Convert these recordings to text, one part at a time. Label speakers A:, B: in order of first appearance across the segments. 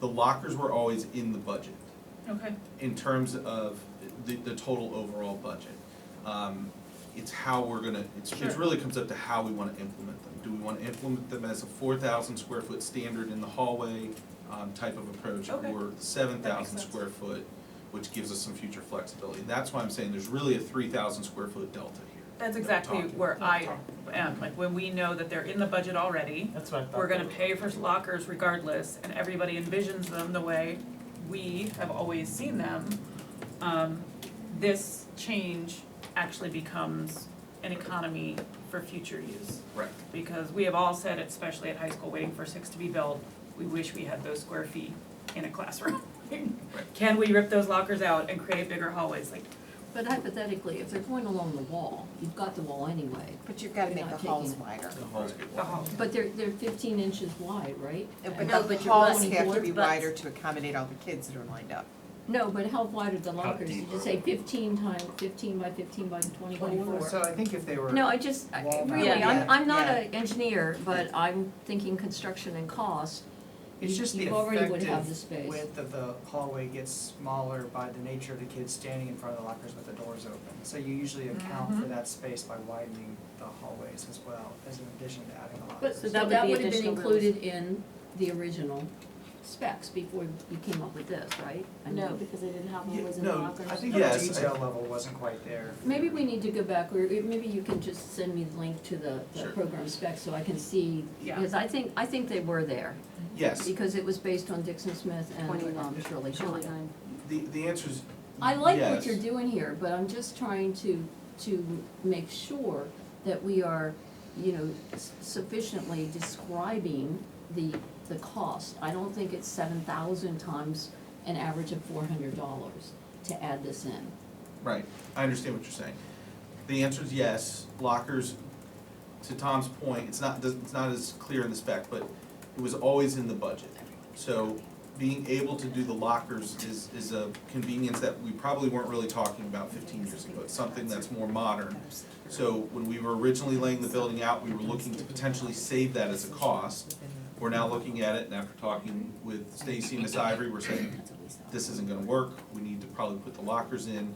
A: the lockers were always in the budget
B: Okay,
A: in terms of the, the total overall budget. Um, It's how we're gonna, it's, it
B: Sure.
A: really comes up to how we wanna implement them. Do we wanna implement them as a four thousand square foot standard in the hallway, um, type of approach?
B: Okay.
A: Or seven thousand
B: sense.
A: square foot, which gives us some future flexibility. That's why I'm saying there's really a three thousand square foot delta here. that
B: that's
A: we're
B: exactly
A: talking-
B: where I
A: talking.
B: am, like when we know that they're in the budget already,
C: That's what I thought.
B: we're gonna pay for lockers regardless, and everybody envisions them the way we have always seen them. Um, this change actually becomes an economy for future use.
A: Right.
B: because we have all said, especially at high school, waiting for six to be built, we wish we had those square feet in a classroom. Can we rip those lockers out and create bigger hallways, like,
D: But hypothetically, if they're going along the wall, you've got the wall anyway,
E: But you've gotta
D: You're
E: make
D: not
E: the halls
D: taking it.
E: wider.
A: The halls get
B: the
A: wider.
B: hall?
D: but they're, they're fifteen inches wide, right?
E: But
D: Uh,
E: the
D: you're
E: halls
D: going
E: have to
D: towards-
E: be
D: but-
E: wider to accommodate all the kids that are lined up.
D: No, but how wide are the lockers?
F: deep
D: Did you
F: are
D: say
F: they?
D: fifteen times, fifteen by fifteen by twenty by
C: So
D: four?
C: I think if they were.
D: No, I just, I-
C: Wall
D: really,
E: mount.
D: I'm, I'm not
E: Yeah,
D: an engineer, but I'm thinking construction and cost.
C: It's just the
D: You already would have the
C: effective
D: space.
C: width of the hallway gets smaller by the nature of the kids standing in front of the lockers with the doors open. So you usually account for
D: Mm-hmm.
C: that space by widening the hallways as well, as an addition to adding the
D: But
C: lockers.
D: so
G: that
D: that
G: would be
D: would have been
G: additional
D: included in the original specs before you came up with this, right? I
G: No,
D: mean,
G: because they didn't have
A: Yeah,
G: one was in the
A: no,
G: lockers.
C: I think the
A: Yes, I-
C: detail level wasn't quite there.
D: Maybe we need to go back, or maybe you can just send me the link to the, the
A: Sure.
D: program specs so I can see.
B: Yeah.
D: Because I think, I think they were there,
A: Yes,
D: because it was based on Dixon Smith and um, Shirley Shine.
G: Twenty-nine.
A: the, the answer is
D: I like what you're
A: yes.
D: doing here, but I'm just trying to, to make sure that we are, you know, s- sufficiently describing the, the cost. I don't think it's seven thousand times an average of four hundred dollars to add this in.
A: Right, I understand what you're saying. The answer is yes, lockers, to Tom's point, it's not, it's not as clear in the spec, but it was always in the budget. So being able to do the lockers is, is a convenience that we probably weren't really talking about fifteen years ago. It's something that's more modern. So when we were originally laying the building out, we were looking to potentially save that as a cost. We're now looking at it, and after talking with Stacy and Miss Ivory, we're saying, this isn't gonna work, we need to probably put the lockers in,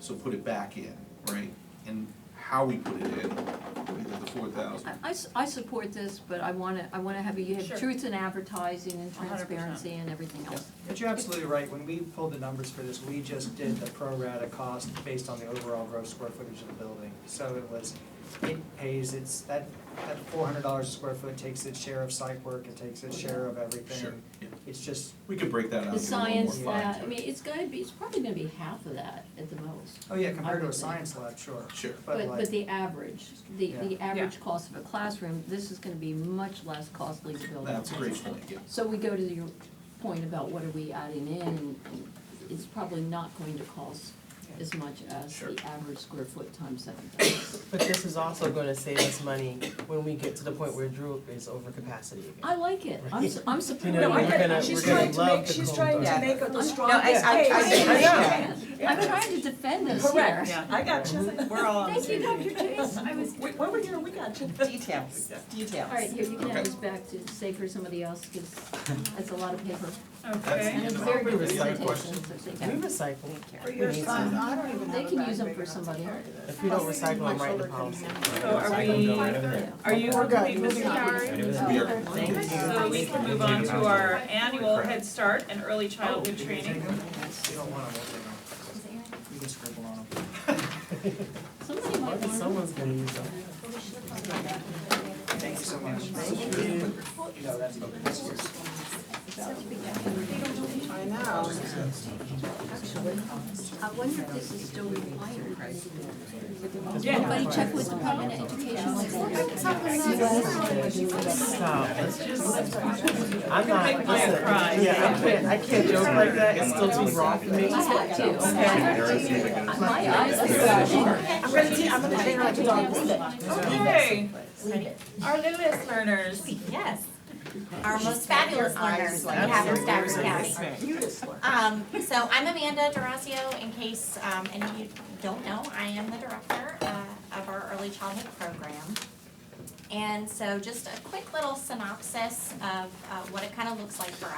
A: so put it back in, right? And how we put it in, either the four thousand.
D: I- I, s- I support this, but I wanna, I wanna have, you
B: Sure.
D: have truth in advertising and
B: A hundred percent.
D: transparency and everything else.
C: But you're absolutely right, when we pulled the numbers for this, we just did the pro rata cost based on the overall gross square footage of the building. So it was, it pays its, that, that four hundred dollars a square foot takes its share of site work, it takes its share of everything.
A: Sure, yeah.
C: It's just,
A: we could break that out.
D: The
A: give it a little more
D: science
A: thought.
D: lab, I mean, it's gotta be, it's probably gonna be half of that at the most.
C: oh yeah, compared to a
D: would think.
C: science lab, sure,
A: Sure,
C: but
D: But, but
C: like,
D: the average, the, the
B: Yeah.
D: average cost of a classroom, this is gonna be much less costly to build.
A: that's a great point, yeah.
D: So we go to your point about what are we adding in, and it's probably not going to cost as much as
A: Sure.
D: the average square foot times seven thousand.
H: But this is also gonna save us money when we get to the point where Drew is over capacity again.
D: I like it, I'm, su- I'm
H: You
D: supportive.
H: know,
B: No, I
H: we're
B: get-
H: gonna,
B: she's
H: we're gonna
B: trying to
H: love
B: make-
H: the
B: she's
H: Cone
B: trying to
H: Dog.
E: make
D: the
E: strongest case.
D: I am trying to defend this here.
B: Yeah.
E: I got you, we're all
D: Thank you, Dr. Chase, I was,
E: We, we were here, we got you. Details, details.
D: all right, here, you can have this back to say for somebody else, because that's a lot of paper. And
B: Okay,
A: That's-
D: it's very good
H: Is that a
D: presentation, so thank
H: We
D: you.
H: recycle.
E: For
H: We need to.
E: I don't even
D: They can use them for somebody else.
H: If we don't recycle, I'm writing a policy.
B: so are we, are you
E: We're good.
B: complete, Mr.
E: Moving on.
B: Howard?
A: We are-
B: So we can move on to our annual Head Start and early childhood
C: oh, you
B: training.
C: don't want them, we'll take them. You can scribble on them.
D: Somebody might
H: Maybe
D: want to.
H: someone's gonna use them.
C: Thank you so much. You know, that's about this year's.
E: I know.
D: Actually, I wonder if this is still required.
B: Yeah,
D: Somebody check with Department of Education.
H: Stop, let's just. I'm
B: gonna
H: not,
B: make Maya
H: listen,
B: cry.
H: yeah, I can't, I can't joke like that, it's still too raw for me.
D: I have to. My eyes are
E: I'm gonna, te- I'm gonna take her like a dog.
B: okay, our littlest learners,
I: Yes. Our most fabulous learners that we have in Stafford County. Um, so I'm Amanda Durasio, in case, um, any of you don't know, I am the director, uh, of our early childhood program. And so just a quick little synopsis of, uh, what it kind of looks like for